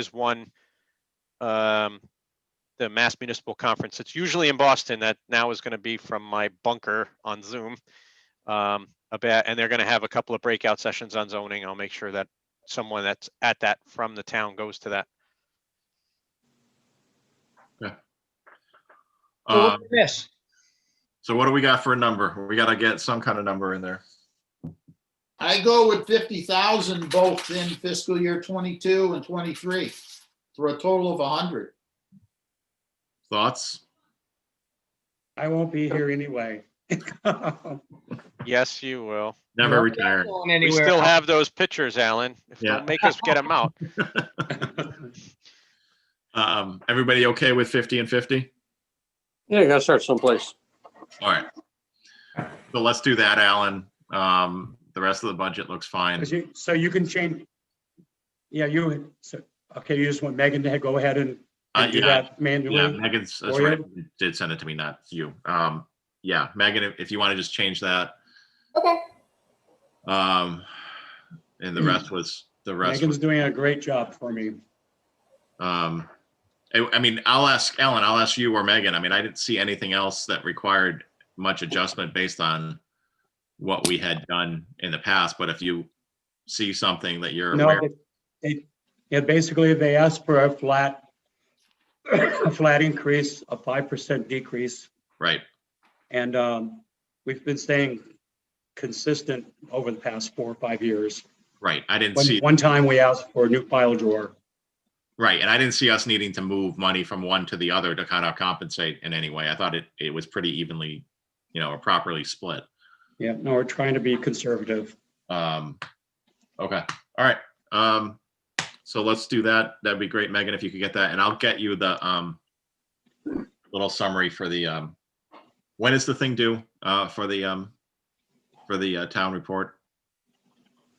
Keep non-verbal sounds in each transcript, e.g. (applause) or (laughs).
is one. Um, the Mass Municipal Conference. It's usually in Boston. That now is going to be from my bunker on Zoom. Um, about, and they're going to have a couple of breakout sessions on zoning. I'll make sure that someone that's at that from the town goes to that. Well, Um, what's This, so what do we got for a number? We gotta get some kind of number in there. I go with fifty thousand both in fiscal year twenty-two and twenty-three, for a total of hundred. Thoughts? I won't be here anyway. (laughs) Well, Yes, you will. Never retired. going We anywhere. still have those pictures, Alan. If Yeah. they'll make us get them out. Um, everybody okay with fifty and fifty? Yeah, you gotta start someplace. All right. So let's do that, Alan. Um, the rest of the budget looks fine. 'cause you- So you can change. Yeah, you, so, okay, you just want Megan to go ahead and Uh, and do yeah, that yeah, manually? Megan's, that's Or right, did send it to me, not you. Um, yeah, Megan, if- if you want to just change that, Okay. um, and the rest was, the rest was Megan's doing a great job for me. Um, I, I mean, I'll ask Ellen, I'll ask you or Megan. I mean, I didn't see anything else that required much adjustment based on what we had done in the past, but if you see something that you're No, aware, they- they, yeah, basically they asked for a flat, a flat increase, a 5% decrease. right, And um, we've been staying consistent over the past four or five years. right. I didn't One, see, one time we asked for a new file drawer. right. And I didn't see us needing to move money from one to the other to kind of compensate in any way. I thought it, it was pretty evenly, you know, or properly split. Yeah, no, we're trying to be conservative. Um, okay, all right. Um, so let's do that. That'd be great, Megan, if you could get that, and I'll get you the, um, little summary for the, um, when is the thing due, uh, for the, um, for the, uh, town report?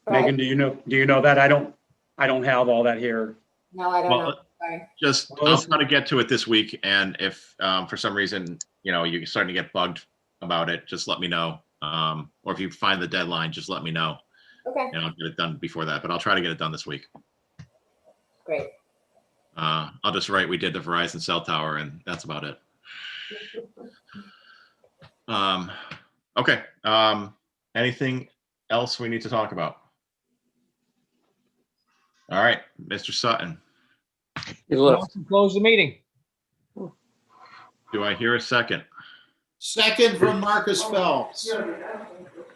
Right. Megan, do you know, do you know that? I don't, I don't have all that here. No, I don't Well, know. Sorry. Just, I'll try to get to it this week, and if, um, for some reason, you know, you're starting to get bugged about it, just let me know. Um, or if you find the deadline, just let me know, Okay, and I'll get it done before that, but I'll try to get it done this week. great. Uh, I'll just write, we did the Verizon cell tower and that's about it. Um, okay, um, anything else we need to talk about? All right, Mr. Sutton, He left. Motion to Close the meeting. do I hear a second? Second from Marcus Phelps.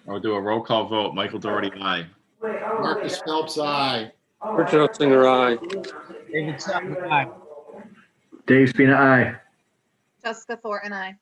I'll do a roll call vote. Michael Doherty, aye. Marcus Phelps, aye. Richard Ottinger, aye. David Sapman, aye. Dave Spina, aye. Jessica Thor and I.